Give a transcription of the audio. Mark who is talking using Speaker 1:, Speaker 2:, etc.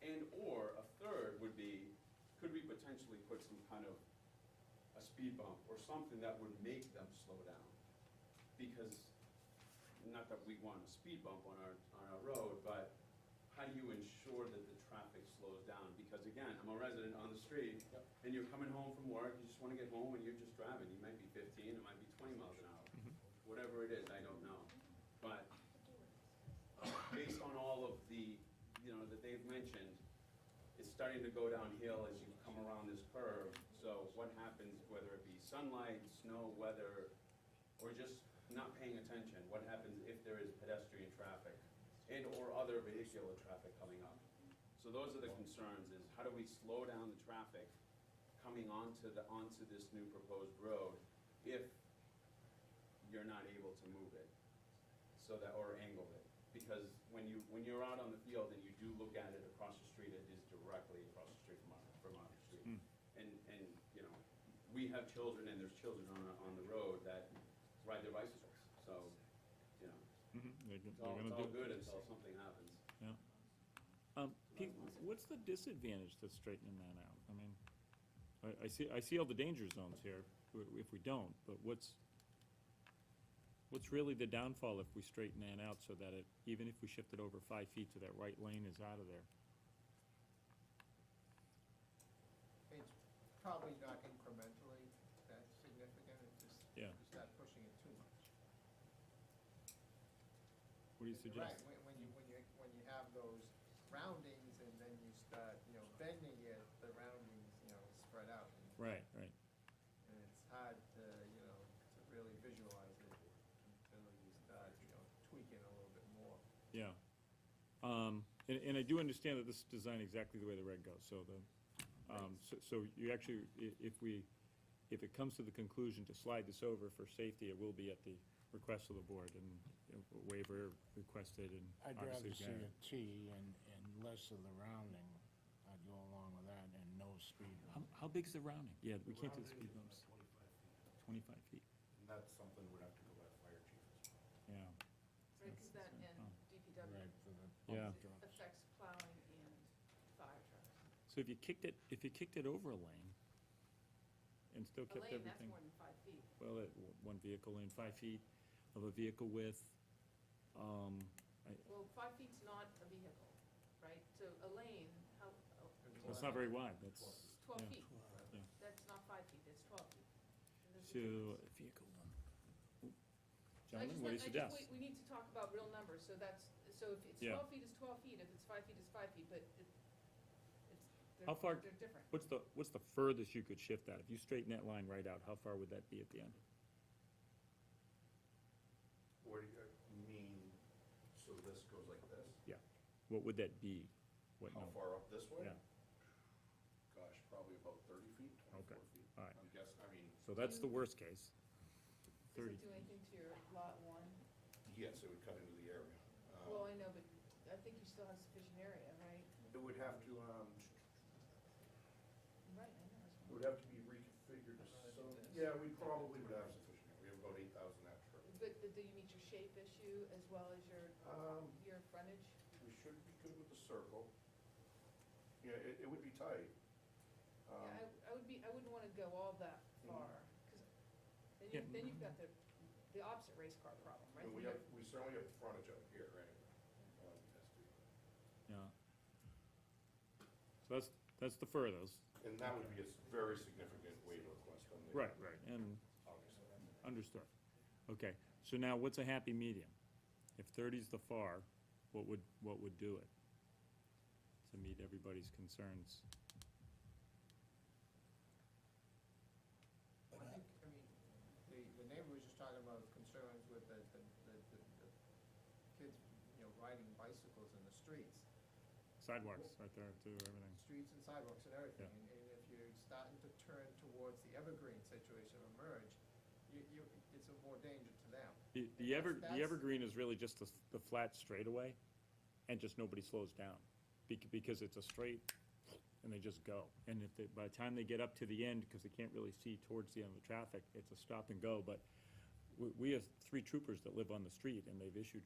Speaker 1: And/or a third would be, could we potentially put some kind of a speed bump or something that would make them slow down? Because, not that we want a speed bump on our, on our road, but how do you ensure that the traffic slows down? Because again, I'm a resident on the street,
Speaker 2: Yep.
Speaker 1: and you're coming home from work, you just wanna get home, and you're just driving, you might be fifteen, it might be twenty miles an hour. Whatever it is, I don't know. But based on all of the, you know, that they've mentioned, it's starting to go downhill as you come around this curve. So what happens, whether it be sunlight, snow, weather, or just not paying attention? What happens if there is pedestrian traffic and/or other vehicular traffic coming up? So those are the concerns, is how do we slow down the traffic coming onto the, onto this new proposed road if you're not able to move it? so that, or angle it. Because when you, when you're out on the field and you do look at it across the street, it is directly across the street from our, from our
Speaker 3: Hmm.
Speaker 1: street. And, and, you know, we have children and there's children on, our- on the road that ride their bicycles. So, you know,
Speaker 3: Mhm, They're go-
Speaker 1: it's all, it's
Speaker 3: they're gonna
Speaker 1: all
Speaker 3: do,
Speaker 1: good until something happens.
Speaker 3: yeah. Um, Pete, what's the disadvantage to straightening that out? I mean, I, I see, I see all the danger zones here, w- if we don't, but what's, what's really the downfall if we straighten that out so that it, even if we shift it over five feet to that right lane is out of there?
Speaker 4: It's probably not incrementally that significant, it's just,
Speaker 3: Yeah.
Speaker 4: it's not pushing it too much.
Speaker 3: What do you
Speaker 4: You're right,
Speaker 3: suggest?
Speaker 4: when, when you, when you, when you have those roundings and then you start, you know, bending it, the roundings, you know, spread out. and-
Speaker 3: Right, right.
Speaker 4: And it's hard to, you know, to really visualize it until you start, you know, tweaking a little bit more.
Speaker 3: Yeah. Um, And, and I do understand that this is designed exactly the way the reg goes, so the, um, so- so you actually, i- if we, if it comes to the conclusion to slide this over for safety, it will be at the request of the board and you know, waiver requested and
Speaker 5: I'd
Speaker 3: obviously.
Speaker 5: rather see
Speaker 3: granted.
Speaker 5: a T and, and less of the rounding. I'd go along with that and no speed.
Speaker 3: How, how big's the rounding? Yeah, we can't do the speed bumps, twenty-five feet,
Speaker 6: And that's something we'd have to go by the fire chief as well.
Speaker 3: yeah.
Speaker 7: Right, because that and DPW
Speaker 5: Right, for the
Speaker 3: Yeah.
Speaker 5: pump trucks.
Speaker 7: affects plowing and fire trucks.
Speaker 3: So if you kicked it, if you kicked it over a lane and still
Speaker 7: A
Speaker 3: kept everything.
Speaker 7: lane, that's more than five feet.
Speaker 3: well, that w- one vehicle in, five feet of a vehicle width. Um, I,
Speaker 7: Well, five feet's not a vehicle, right? So a lane, how? oh,
Speaker 3: that's not very wide, that's.
Speaker 7: It's Twelve
Speaker 3: yeah,
Speaker 7: feet.
Speaker 3: yeah.
Speaker 7: That's not five feet, that's twelve feet. And there's a
Speaker 3: So,
Speaker 7: difference.
Speaker 3: vehicle one.
Speaker 7: So
Speaker 3: Gentlemen, what
Speaker 7: I just
Speaker 3: do you
Speaker 7: want- I just-
Speaker 3: suggest?
Speaker 7: We we need to talk about real numbers, so that's, so if it's
Speaker 3: Yeah.
Speaker 7: twelve feet, it's twelve feet, if it's five feet, it's five feet, but it- it's,
Speaker 3: How far-
Speaker 7: they're, they're different.
Speaker 3: What's the, what's the furthest you could shift that? If you straighten that line right out, how far would that be at the end?
Speaker 6: Or do you mean, so this goes like this?
Speaker 3: Yeah. What would that be? What
Speaker 6: How
Speaker 3: number?
Speaker 6: far up this way?
Speaker 3: Yeah,
Speaker 6: Gosh, probably about thirty feet, twenty-four
Speaker 3: Okay,
Speaker 6: feet.
Speaker 3: all right.
Speaker 6: I'm guessing, I mean,
Speaker 3: so that's the worst case.
Speaker 7: Does
Speaker 3: 30.
Speaker 7: it do anything to your lot one?
Speaker 6: yes, it would cut into the area. Um,
Speaker 7: Well, I know, but I think you still have sufficient area, right?
Speaker 6: It would have to, um,
Speaker 7: Right, I know. that's
Speaker 6: it
Speaker 7: fine.
Speaker 6: would have to be reconfigured, so, yeah, we probably would have sufficient, we have about eight thousand extra.
Speaker 7: But do you meet your shape issue as well as your,
Speaker 6: Um,
Speaker 7: your frontage?
Speaker 6: We should be good with the circle. Yeah, it, it would be tight. Um, Mm-hmm.
Speaker 7: Yeah, I, I would be, I wouldn't wanna go all that far, cause then you,
Speaker 3: Yeah.
Speaker 7: then you've got the, the opposite race car problem, right?
Speaker 6: And we have, we certainly have frontage up here, right? Um, that's the-
Speaker 3: Yeah. So that's, that's the furthest.
Speaker 6: And that would be a s- very significant waiver request on the.
Speaker 3: Right, right. And
Speaker 6: Obviously.
Speaker 3: Understood. Okay, so now what's a happy medium? If thirty's the far, what would, what would do it? To meet everybody's concerns.
Speaker 4: I think, I mean, the, the neighbor was just talking about concerns with the, the, the, the the kids, you know, riding bicycles in the streets.
Speaker 3: Sidewalks right there too, everything.
Speaker 4: streets and sidewalks and everything.
Speaker 3: Yeah.
Speaker 4: And and if you're starting to turn towards the evergreen situation of merge, you, you, it's a more danger to them.
Speaker 3: The, the ever,
Speaker 4: That's-
Speaker 3: the
Speaker 4: that's-
Speaker 3: evergreen is really just the, the flat straightaway, and just nobody slows down. bec- Because it's a straight, and they just go. And if they, by the time they get up to the end, because they can't really see towards the end of the traffic, it's a stop and go. But we, we have three troopers that live on the street, and they've issued